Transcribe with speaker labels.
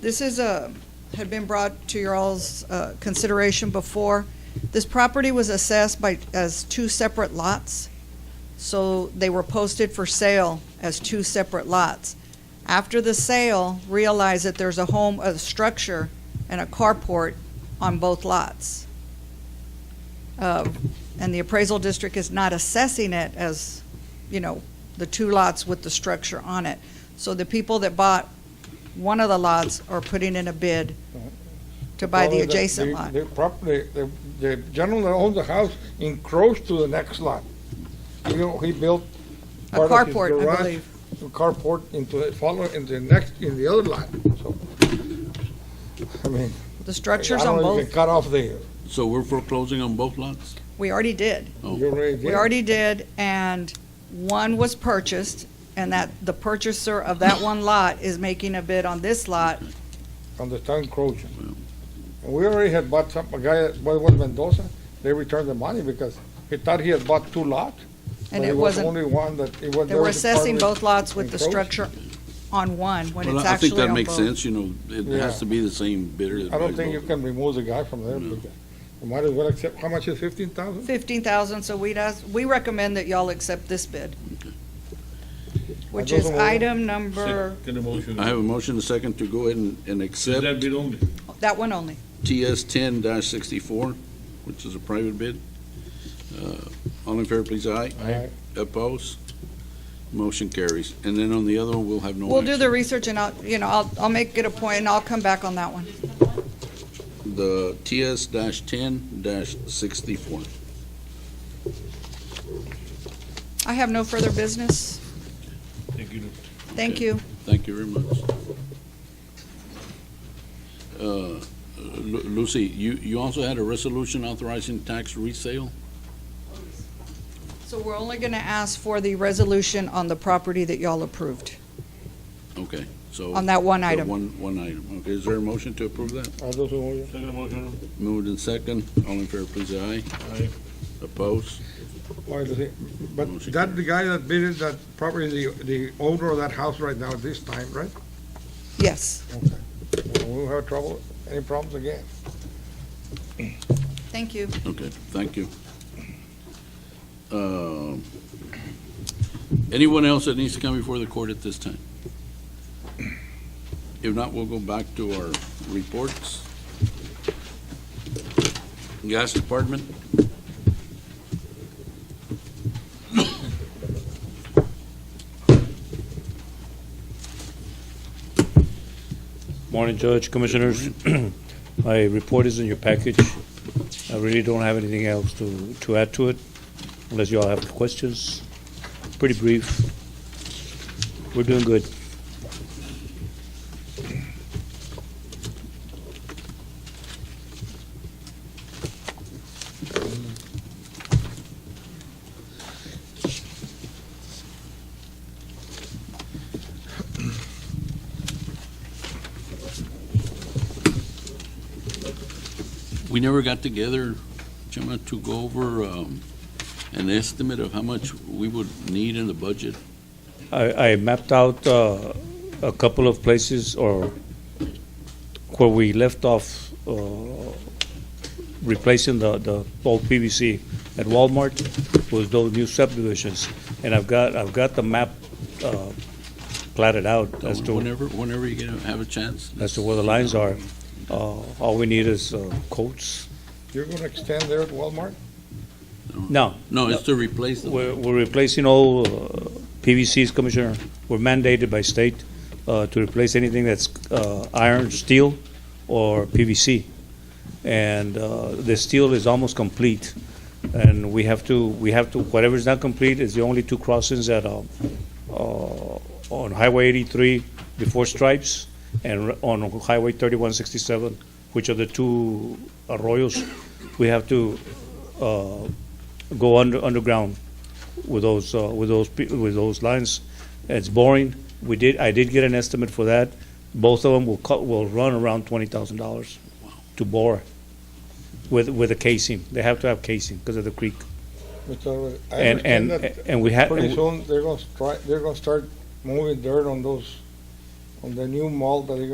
Speaker 1: This is a, had been brought to your all's uh, consideration before. This property was assessed by, as two separate lots, so they were posted for sale as two separate lots. After the sale, realized that there's a home, a structure, and a carport on both lots. Uh, And the appraisal district is not assessing it as, you know, the two lots with the structure on it. So the people that bought one of the lots are putting in a bid to buy the
Speaker 2: Well,
Speaker 1: adjacent
Speaker 2: the-
Speaker 1: lot.
Speaker 2: The property, the, the gentleman that owns the house encroached to the next lot. You know, he built
Speaker 1: A
Speaker 2: part of his
Speaker 1: carport, I
Speaker 2: garage,
Speaker 1: believe.
Speaker 2: a Carport into, the- follow, into the next, in the other lot, so. I mean,
Speaker 1: The
Speaker 2: I
Speaker 1: structure's on
Speaker 2: don't know, if you
Speaker 1: both.
Speaker 2: can cut off the,
Speaker 3: So we're foreclosing on both lots?
Speaker 1: We already did.
Speaker 3: Oh.
Speaker 2: you already
Speaker 1: We
Speaker 2: did.
Speaker 1: already did, and one was purchased, and that, the purchaser of that one lot is making a bid on this lot.
Speaker 2: on the town encroaching. And we already had bought some, a guy, what was Mendoza, they returned the money because he thought he had bought two lots.
Speaker 1: And
Speaker 2: but
Speaker 1: it
Speaker 2: was
Speaker 1: wasn't-
Speaker 2: Only one that, it was.
Speaker 1: They
Speaker 2: there
Speaker 1: were
Speaker 2: was a part
Speaker 1: assessing
Speaker 2: which
Speaker 1: both lots with the
Speaker 2: encroached.
Speaker 1: structure on one, when
Speaker 3: Well,
Speaker 1: it's
Speaker 3: I think
Speaker 1: actually
Speaker 3: that
Speaker 1: on
Speaker 3: makes
Speaker 1: both.
Speaker 3: sense, you know, it
Speaker 2: Yeah.
Speaker 3: has to be the same bidder. that
Speaker 2: I don't
Speaker 3: buys
Speaker 2: think you
Speaker 3: both.
Speaker 2: can remove the guy from there. because You might as well accept, how much is fifteen thousand?
Speaker 1: Fifteen thousand, so we'd ask, we recommend that y'all accept this bid. Which is
Speaker 2: Another one.
Speaker 1: item number,
Speaker 4: Second motion.
Speaker 3: I have a motion, a second, to go ahead and, and
Speaker 4: Is that
Speaker 3: accept
Speaker 4: bid only?
Speaker 1: that one only.
Speaker 3: TS ten sixty-four, which is a private bid. Uh, All in favor, please, aye.
Speaker 2: Aye.
Speaker 3: Oppose? Motion carries. And then on the other one, we'll have no
Speaker 1: We'll do the
Speaker 3: action.
Speaker 1: research and I'll, you know, I'll, I'll make it a point and I'll come back on that one.
Speaker 3: The TS ten sixty-four.
Speaker 1: I have no further business.
Speaker 4: Thank you.
Speaker 1: Thank
Speaker 3: Okay.
Speaker 1: you.
Speaker 3: Thank you very much. Uh, Lu- Lucy, you, you also had a resolution authorizing tax resale?
Speaker 1: So we're only gonna ask for the resolution on the property that y'all approved,
Speaker 3: Okay, so.
Speaker 1: on that one
Speaker 3: the
Speaker 1: item.
Speaker 3: One, one item. Okay, is there a motion to approve that?
Speaker 2: Are those all-
Speaker 4: Second motion.
Speaker 3: Moved and second. All in favor, please, aye.
Speaker 4: Aye.
Speaker 3: Oppose?
Speaker 2: why does it- But
Speaker 3: Motion
Speaker 2: that, the guy that bid it, that property, the, the owner of that house right now, this time, right?
Speaker 1: Yes,
Speaker 2: We'll have trouble, any problems again.
Speaker 1: thank you.
Speaker 3: Okay, thank you. Um, Anyone else that needs to come before the court at this time? If not, we'll go back to our reports. Gas Department?
Speaker 5: Morning, Judge, Commissioners. My report is in your package. I really don't have anything else to, to add to it, unless y'all have questions. Pretty brief. We're doing good.
Speaker 3: We never got together, Chema, to go over um, an estimate of how much we would need in the budget.
Speaker 5: I, I mapped out uh, a couple of places or where we left off uh, replacing the, the old PVC at Walmart was those new subdivisions, and I've got I've got the map uh, platted out as to
Speaker 3: Whenever, whenever you get a- have a chance.
Speaker 5: as to where the lines are. Uh, all we need is uh, quotes.
Speaker 2: You're gonna extend there at Walmart?
Speaker 5: Now
Speaker 3: No, it's to replace them.
Speaker 5: We're, we're replacing all uh, PVCs, Commissioner. We're mandated by state uh, to replace anything that's uh, iron, steel, or PVC. And uh, the steel is almost complete. And we have to, we have to, whatever's not complete is the only two crossings that are uh, on Highway 83 before Stripes and r- on Highway 3167, which are the two arroyos. We have to uh, go under, underground with those, uh, with those, pe- with those lines. It's boring. We did, I did get an estimate for that. Both of them will cut, will run around twenty thousand dollars to bore with, with a casing. They have to have casing because of the creek.
Speaker 2: Mr. Alvarez, I
Speaker 5: And, and,
Speaker 2: understand that
Speaker 5: and we have,
Speaker 2: Pretty soon, they're gonna stri, they're gonna start moving dirt on those, on the new mall that they're gonna